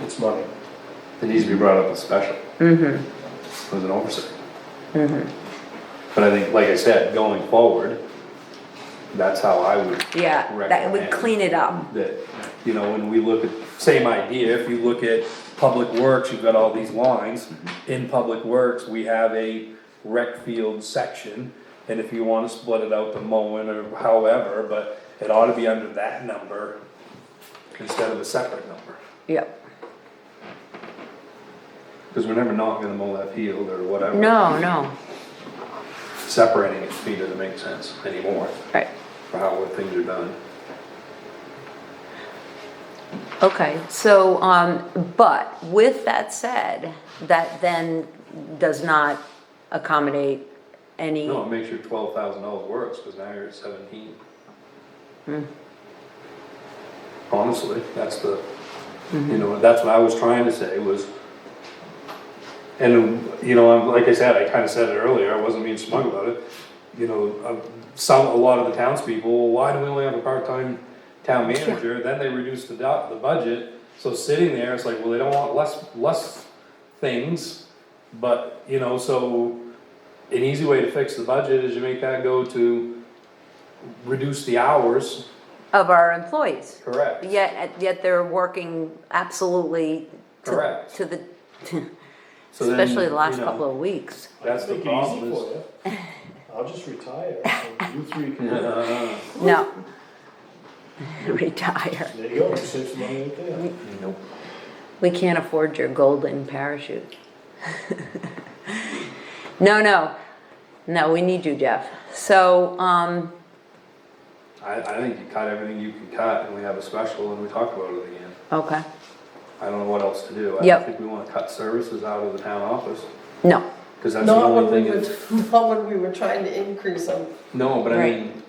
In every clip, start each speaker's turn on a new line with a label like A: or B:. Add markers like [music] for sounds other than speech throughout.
A: it's money. It needs to be brought up as special. Mm-hmm. As an oversight. Mm-hmm. But I think, like I said, going forward, that's how I would,
B: Yeah, that would
A: Recommend.
B: clean it up.
A: that, you know, when we look at, same idea, if you look at Public Works, you've got all these lines. In Public Works, we have a rec field section, and if you wanna split it out to mowing or however, but it ought to be under that number instead of a separate number.
B: Yep.
A: Cause we're never not gonna mow that field or whatever.
B: No, no.
A: Separating it feed doesn't make sense anymore
B: Right.
A: for how what things are done.
B: Okay, so, um, but with that said, that then does not accommodate any,
A: No, it makes your twelve thousand dollars worse, cause now you're at seventeen. Honestly, that's the, you know, that's what I was trying to say was. And, you know, I'm, like I said, I kinda said it earlier, I wasn't being smug about it, you know, uh, some, a lot of the townspeople, "Well, why do we only have a part-time town manager? Then they reduce the dot, the budget, so sitting there, it's like, well, they don't want less, less things, but, you know, so an easy way to fix the budget is you make that go to reduce the hours.
B: of our employees.
A: Correct.
B: Yet, yet they're working absolutely to-
A: Correct.
B: to the,
A: So then,
B: especially the last
A: you know,
B: couple of weeks.
A: That's the
C: Make it easy
A: problem is.
C: for you. [laughs] I'll just [laughs] retire, and you three can, there
A: Uh,
B: No. [laughs] Retire.
C: you go, you save some money right there.
A: nope.
B: We can't afford your golden parachute. [laughs] No, no, no, we need you, Jeff. So, um,
A: I, I think you cut everything you can cut and we have a special and we talk about it again.
B: okay,
A: I don't know what else to do. I
B: Yep.
A: don't think we wanna cut services out of the town office,
B: no,
A: cause that's the
D: Not when
A: only
D: we
A: thing
D: were,
A: that's,
D: [laughs] not when we were trying to increase them.
A: no, but I
B: Right.
A: mean.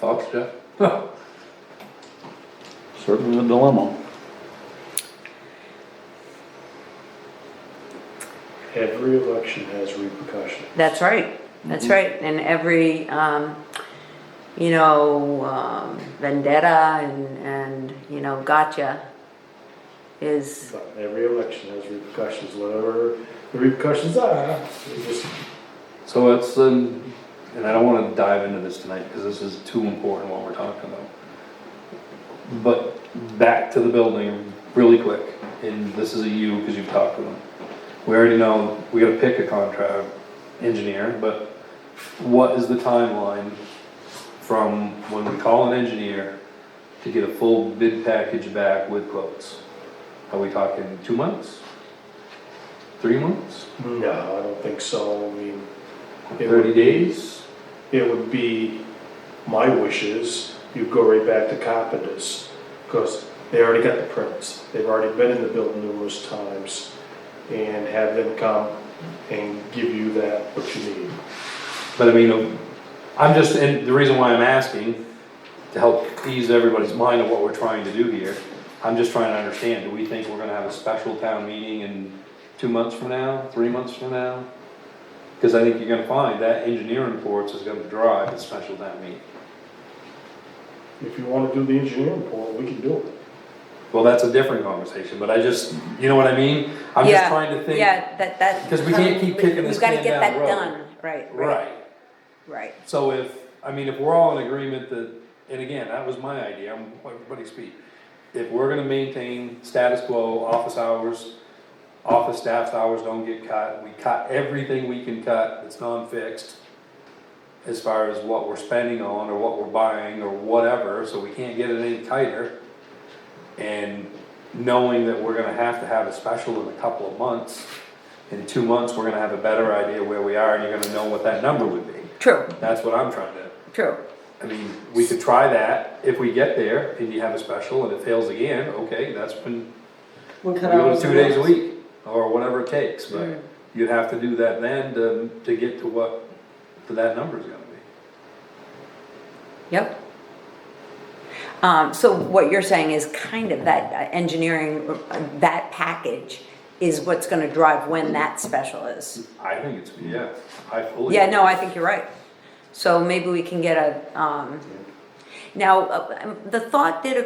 A: Thoughts, Jeff?
E: Certainly a dilemma.
C: Every election has repercussions.
B: that's right, that's right. And every, um, you know, um, vendetta and, and, you know, gotcha is,
C: But Every election has repercussions, whatever the repercussions are, they just
A: So it's, um, and I don't wanna dive into this tonight, cause this is too important what we're talking about. But back to the building really quick, and this is a you, cause you've talked to them. We already know, we gotta pick a contract engineer, but what is the timeline from when we call an engineer to get a full bid package back with quotes? Are we talking two months? Three months?
C: No, I don't think so, I mean. it would-
A: Thirty days?
C: It would be my wishes, you go right back to carpenters, because they already got the prints, they've already been in the building numerous times, and have them come and give you that, what you need.
A: But I mean, uh, I'm just, and the reason why I'm asking, to help ease everybody's mind of what we're trying to do here, I'm just trying to understand, do we think we're gonna have a special town meeting in two months from now, three months from now? Cause I think you're gonna find that engineering reports is gonna drive the special town meeting.
C: If you wanna do the engineering report, we can do it.
A: Well, that's a different conversation, but I just, you know what I mean? I'm just
B: yeah,
A: trying to think.
B: yeah, that, that.
A: 'Cause we can't keep kicking this
B: We've gotta
A: can
B: get
A: down the
B: that
A: road.
B: done, right, right,
A: Right.
B: right.
A: So if, I mean, if we're all in agreement that, and again, that was my idea, I'm, everybody speak. If we're gonna maintain status quo, office hours, office staff's hours don't get cut, we cut everything we can cut that's non-fixed as far as what we're spending on, or what we're buying, or whatever, so we can't get it any tighter. And knowing that we're gonna have to have a special in a couple of months, in two months, we're gonna have a better idea where we are, and you're gonna know what that number would be.
B: True,
A: That's what I'm trying to,
B: true.
A: I mean, we could try that, if we get there and you have a special and it fails again, okay, that's when,
D: We
A: we
D: cut
A: go
D: hours
A: to two
D: and
A: days a
D: hours.
A: week, or whatever it takes, but you'd have to do that then to, to get to what, to that number's gonna be.
B: Yep. Um, so what you're saying is kind of that uh, engineering, uh, that package is what's gonna drive when that special is.
A: I think it's, yeah, I fully.
B: Yeah, no, I think you're right. So maybe we can get a, um, now, uh, um, the thought did